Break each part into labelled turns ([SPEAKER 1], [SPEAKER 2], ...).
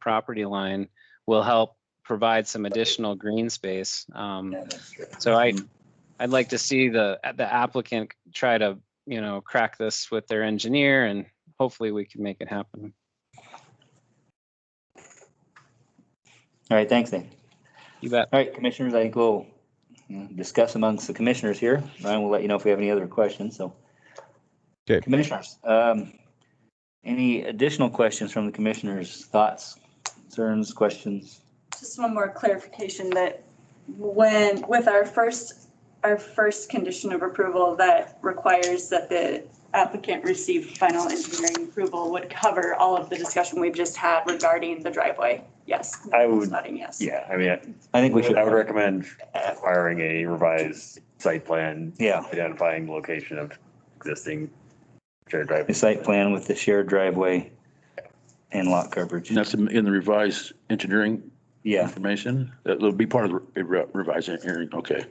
[SPEAKER 1] property line will help provide some additional green space. Um,
[SPEAKER 2] Yeah, that's true.
[SPEAKER 1] So I, I'd like to see the, the applicant try to, you know, crack this with their engineer and hopefully we can make it happen.
[SPEAKER 2] All right, thanks, Dan.
[SPEAKER 1] You bet.
[SPEAKER 2] All right, commissioners, I think we'll mm, discuss amongst the commissioners here. Ryan will let you know if we have any other questions, so.
[SPEAKER 3] Okay.
[SPEAKER 2] Commissioners, um, any additional questions from the commissioners, thoughts, concerns, questions?
[SPEAKER 4] Just one more clarification that when, with our first, our first condition of approval that requires that the applicant receive final engineering approval would cover all of the discussion we've just had regarding the driveway. Yes.
[SPEAKER 5] I would-
[SPEAKER 4] Nodding yes.
[SPEAKER 5] Yeah, I mean, I-
[SPEAKER 2] I think we should.
[SPEAKER 5] I would recommend acquiring a revised site plan,
[SPEAKER 2] Yeah,
[SPEAKER 5] identifying location of existing shared
[SPEAKER 2] the
[SPEAKER 5] driveway.
[SPEAKER 2] site plan with the shared driveway and lot coverage.
[SPEAKER 6] That's in in the revised engineering
[SPEAKER 2] Yeah,
[SPEAKER 6] information? That'll be part of the re- revised engineering, okay.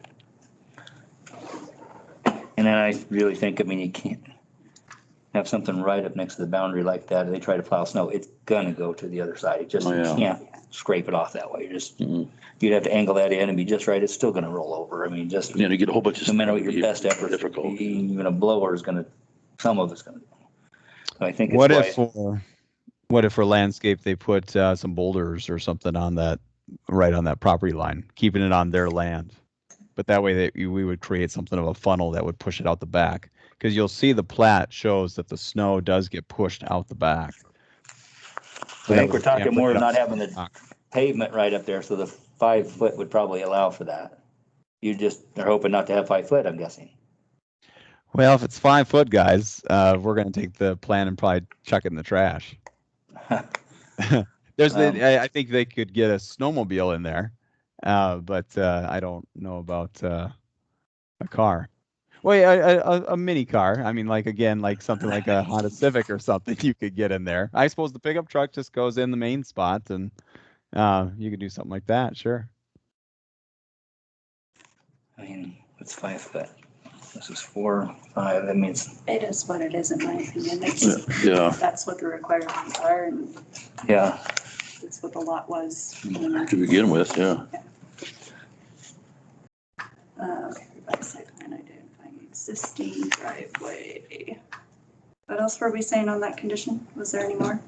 [SPEAKER 2] and then I really think, I mean, you can't have something right up next to the boundary like that. If They try to plow snow, it's gonna go to the other side. It just, you
[SPEAKER 6] Oh, yeah.
[SPEAKER 2] can't scrape it off that way. You just,
[SPEAKER 6] Mhm.
[SPEAKER 2] you'd have to angle that in and be just right. It's still gonna roll over. I mean, just
[SPEAKER 6] You know, you get a whole bunch of.
[SPEAKER 2] no matter what
[SPEAKER 6] stuff,
[SPEAKER 2] your best
[SPEAKER 6] it'd be
[SPEAKER 2] effort,
[SPEAKER 6] Difficult.
[SPEAKER 2] even a blower is gonna, some of it's gonna. So I think. it's
[SPEAKER 3] What
[SPEAKER 2] why-
[SPEAKER 3] if, for- what if for landscape, they put uh, some boulders or something on that, right on that property line, keeping it on their land? But that way that you- we would create something of a funnel that would push it out the back. Because you'll see the plat shows that the snow does get pushed out the back.
[SPEAKER 2] I think we're talking more of
[SPEAKER 3] about
[SPEAKER 2] not having the pavement right up there, so the five foot would probably allow for that. You just, they're hoping not to have five foot, I'm guessing.
[SPEAKER 3] Well, if it's five foot, guys, uh, we're gonna take the plan and probably chuck it in the trash. There's,
[SPEAKER 2] Um,
[SPEAKER 3] the, I, I think they could get a snowmobile in there, uh, but uh, I don't know about uh, a car. Wait, a, a- a, a mini car. I mean, like again, like something like a Honda Civic or something you could get in there. I suppose the pickup truck just goes in the main spot, and uh, you could do something like that. Sure.
[SPEAKER 2] I mean, it's five foot. This is four, five, that means,
[SPEAKER 4] It is what it is in my opinion.
[SPEAKER 6] Yeah,
[SPEAKER 4] It's-
[SPEAKER 6] Yeah,
[SPEAKER 4] That's what the requirements are and
[SPEAKER 2] yeah.
[SPEAKER 4] that's what the lot was.
[SPEAKER 5] Mm-hmm.
[SPEAKER 6] to begin with, yeah.
[SPEAKER 4] Uh, okay, revised site plan identifying existing driveway. What else were we saying on that condition? Was there any more?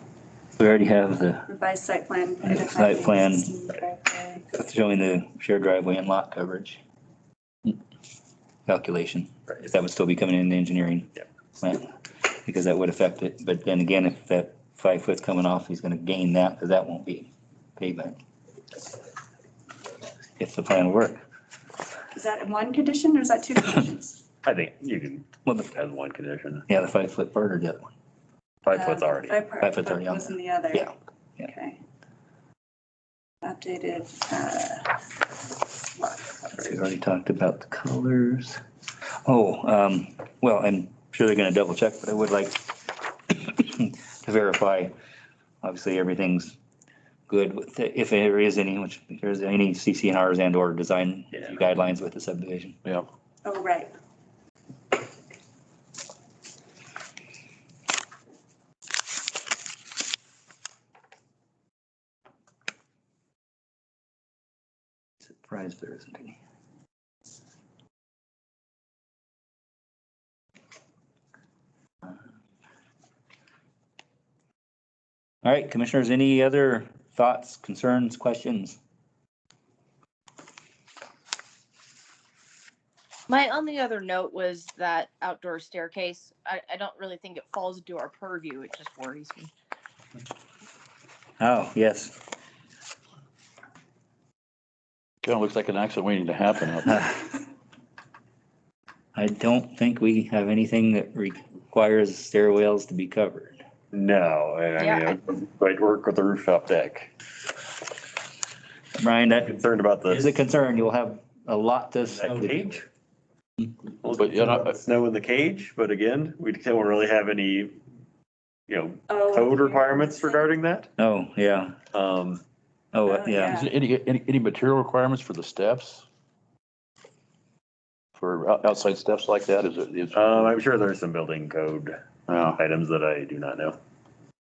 [SPEAKER 2] We already have the,
[SPEAKER 4] Revised site plan.
[SPEAKER 2] Revised site plan.
[SPEAKER 4] identifying driveway.
[SPEAKER 2] showing the shared driveway and lot coverage. Calculation, if that would still be coming in engineering.
[SPEAKER 5] Yep.
[SPEAKER 2] plan, Because that would affect it, but then again, if that five foot's coming off, he's gonna gain that, because that won't be pavement. If the plan work.
[SPEAKER 4] Is that in one condition or is that two conditions?
[SPEAKER 5] I think you can,
[SPEAKER 2] Well, the-
[SPEAKER 5] as one condition,
[SPEAKER 2] yeah, the five foot part or the other one.
[SPEAKER 5] five foot's already.
[SPEAKER 4] Uh, Five part-
[SPEAKER 2] Five foot's already on
[SPEAKER 4] Was in the other.
[SPEAKER 2] Yeah. Yeah.
[SPEAKER 4] Okay. Updated, uh, lot coverage.
[SPEAKER 2] We already talked about the colors. Oh, um, well, I'm sure they're gonna double check, but I would like to verify, obviously, everything's good with, if there is any, which if there's any CCNRs and or design
[SPEAKER 5] Yeah.
[SPEAKER 2] guidelines with the subdivision.
[SPEAKER 6] Yeah.
[SPEAKER 4] Oh, right.
[SPEAKER 2] Surprised there isn't any. All right, commissioners, any other thoughts, concerns, questions?
[SPEAKER 7] My only other note was that outdoor staircase. I, I don't really think it falls into our purview. It just worries me.
[SPEAKER 2] Oh, yes.
[SPEAKER 6] Kind of looks like an accident waiting to happen. out there.
[SPEAKER 2] I don't think we have anything that requires stairwells to be covered.
[SPEAKER 5] No, and I mean, I'd work with the rooftop deck.
[SPEAKER 2] Brian, that
[SPEAKER 5] Concerned about
[SPEAKER 2] is a
[SPEAKER 5] the.
[SPEAKER 2] concern. You'll have a lot to.
[SPEAKER 5] that cage.
[SPEAKER 6] But, you know, uh, I-
[SPEAKER 5] Snow in the cage, but again, we don't really have any, you know,
[SPEAKER 4] Oh,
[SPEAKER 5] code
[SPEAKER 4] yeah.
[SPEAKER 5] requirements regarding that.
[SPEAKER 2] Oh, yeah.
[SPEAKER 5] Um,
[SPEAKER 2] Oh,
[SPEAKER 4] Oh,
[SPEAKER 2] yeah.
[SPEAKER 6] Is there any, any, any material requirements for the steps? For out- outside steps
[SPEAKER 5] Uh,
[SPEAKER 6] like that, is it? is-
[SPEAKER 5] um, I'm sure there's some building code
[SPEAKER 6] Yeah.
[SPEAKER 5] items that I do not know.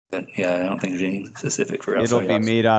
[SPEAKER 2] But yeah, I don't think there's anything specific for outside.
[SPEAKER 3] It'll be made out